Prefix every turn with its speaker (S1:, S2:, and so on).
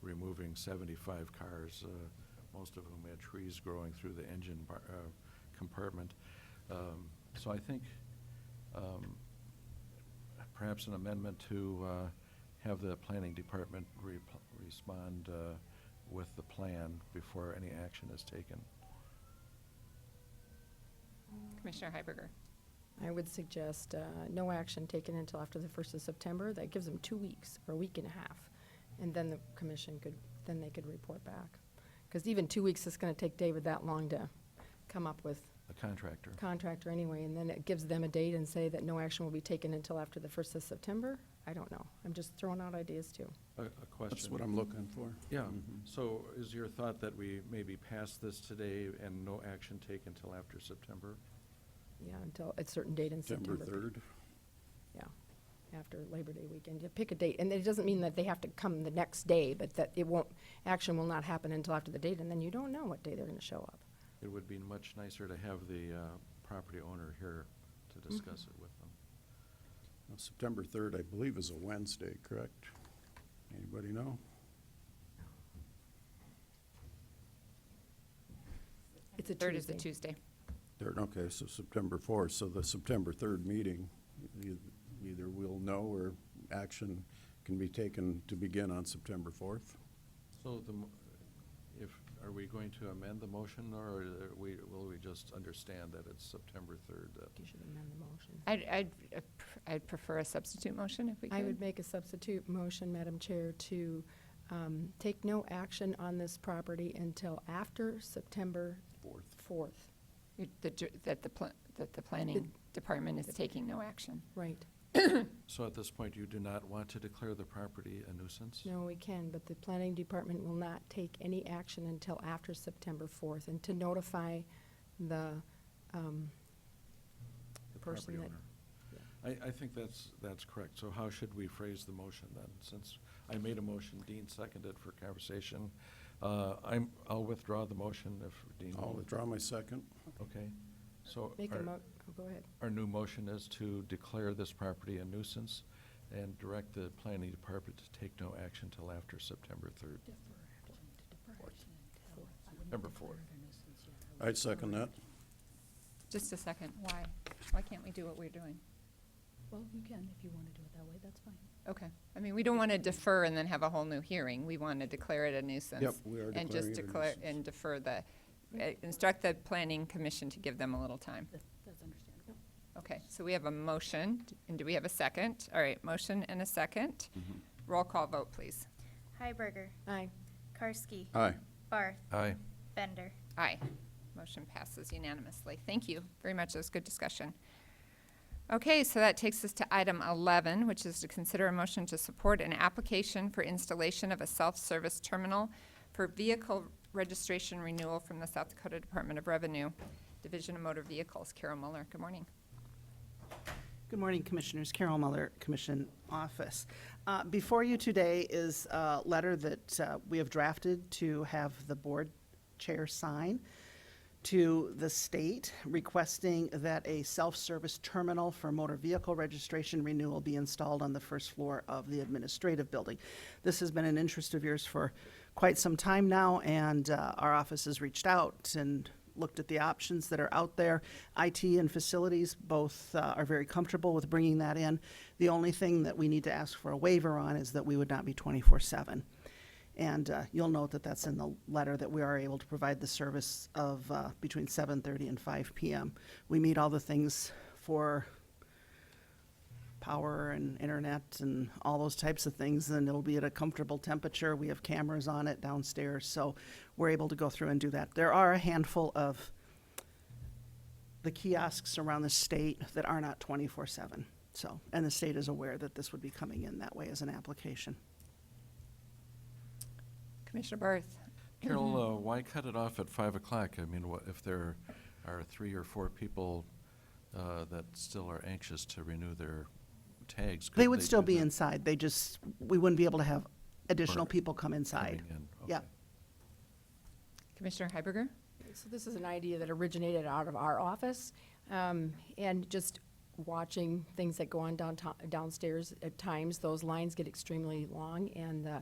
S1: removing seventy-five cars, uh, most of whom had trees growing through the engine bar- uh, compartment. Um, So I think um, perhaps an amendment to uh, have the planning department repl- respond uh, with the plan before any action is taken.
S2: Commissioner Heiberger.
S3: I would suggest uh, no action taken until after the 1st of September. That gives them two weeks, or a week and a half. And then the commission could, then they could report back. Because even two weeks, it's going to take David that long to come up with
S1: The contractor.
S3: contractor anyway. And then it gives them a date and say that no action will be taken until after the 1st of September? I don't know. I'm just throwing out ideas too.
S1: A a question.
S4: That's what I'm looking for.
S1: Yeah,
S4: Mhm.
S1: so is your thought that we maybe pass this today and no action taken until after September?
S3: Yeah, until a certain date in
S4: September
S3: September.
S4: 3rd.
S3: Yeah, after Labor Day weekend, you pick a date, and it doesn't mean that they have to come the next day, but that it won't, action will not happen until after the date, and then you don't know what day they're gonna show up.
S1: It would be much nicer to have the uh, property owner here to
S3: Mm-hmm.
S1: discuss it with them.
S4: Now, September 3rd, I believe, is a Wednesday, correct? Anybody know?
S3: It's a
S2: Third is the
S3: Tuesday.
S2: Tuesday.
S4: Third, okay, so September 4th, so the September 3rd meeting, e- either we'll know or action can be taken to begin on September 4th.
S1: So the, mo- if, are we going to amend the motion, or are we, will we just understand that it's September 3rd? that-
S3: You should amend the motion.
S2: I'd, I'd, uh, pr- I'd prefer a substitute motion if we could.
S3: I would make a substitute motion, Madam Chair, to, um, take no action on this property until after September
S4: Fourth.
S3: fourth.
S2: You- the ju- That the, pla- that the planning department is taking no action.
S3: Right.
S1: So at this point, you do not want to declare the property a nuisance?
S3: No, we can, but the planning department will not take any action until after September fourth, and to notify the, um,
S1: The
S3: person
S1: property
S3: that-
S1: owner. I, I think that's, that's correct. So how should we phrase the motion then? Since I made a motion, Dean seconded for conversation. Uh, I'm, I'll withdraw the motion if Dean.
S4: I'll withdraw my second.
S1: Okay. So
S3: Make a
S1: our,
S3: mo, oh, go ahead.
S1: our new motion is to declare this property a nuisance and direct the planning department to take no action till after September third. Number four.
S4: I'd second that.
S2: Just a second, why? Why can't we do what we're doing?
S5: Well, you can, if you want to do it that way, that's fine.
S2: Okay, I mean, we don't want to defer and then have a whole new hearing. We want to declare it a nuisance.
S4: Yep, we are
S2: And just
S4: declaring it a
S2: declare,
S4: nuisance.
S2: and defer the, uh, instruct the planning commission to give them a little time.
S5: That- That's understandable.
S2: Okay, so we have a motion, and do we have a second? All right, motion and a second.
S4: Mm-hmm.
S2: Roll call vote, please.
S6: Heiberger.
S3: Aye.
S6: Karski.
S4: Aye.
S6: Barth.
S1: Aye.
S6: Bender.
S2: Aye. Motion passes unanimously. Thank you very much. That was good discussion. Okay, so that takes us to item 11, which is to consider a motion to support an application for installation of a self-service terminal for vehicle registration renewal from the South Dakota Department of Revenue, Division of Motor Vehicles. Carol Muller, good morning.
S7: Good morning, Commissioners. Carol Muller, Commission Office. Uh, Before you today is a letter that uh, we have drafted to have the board chair sign to the state requesting that a self-service terminal for motor vehicle registration renewal be installed on the first floor of the administrative building. This has been an interest of yours for quite some time now, and uh, our office has reached out and looked at the options that are out there. IT and facilities both uh, are very comfortable with bringing that in. The only thing that we need to ask for a waiver on is that we would not be 24/7. And uh, you'll note that that's in the letter, that we are able to provide the service of uh, between 7:30 and 5 PM. We meet all the things for power and internet and all those types of things, and it'll be at a comfortable temperature. We have cameras on it downstairs, so we're able to go through and do that. There are a handful of the kiosks around the state that are not 24/7, so, and the state is aware that this would be coming in that way as an application.
S2: Commissioner Barth.
S1: Carol,
S7: Mm-hmm.
S1: uh, why cut it off at five o'clock? I mean, what, if there are three or four people, uh, that still are anxious to renew their tags? could
S7: They would still
S1: do
S7: be
S1: that
S7: inside, they just, we wouldn't be able to have additional
S1: Or
S7: people come inside.
S1: coming in?
S7: Yeah.
S1: Okay.
S2: Commissioner Heiberger?
S3: So this is an idea that originated out of our office, um, and just watching things that go on downtown, downstairs, at times, those lines get extremely long, and the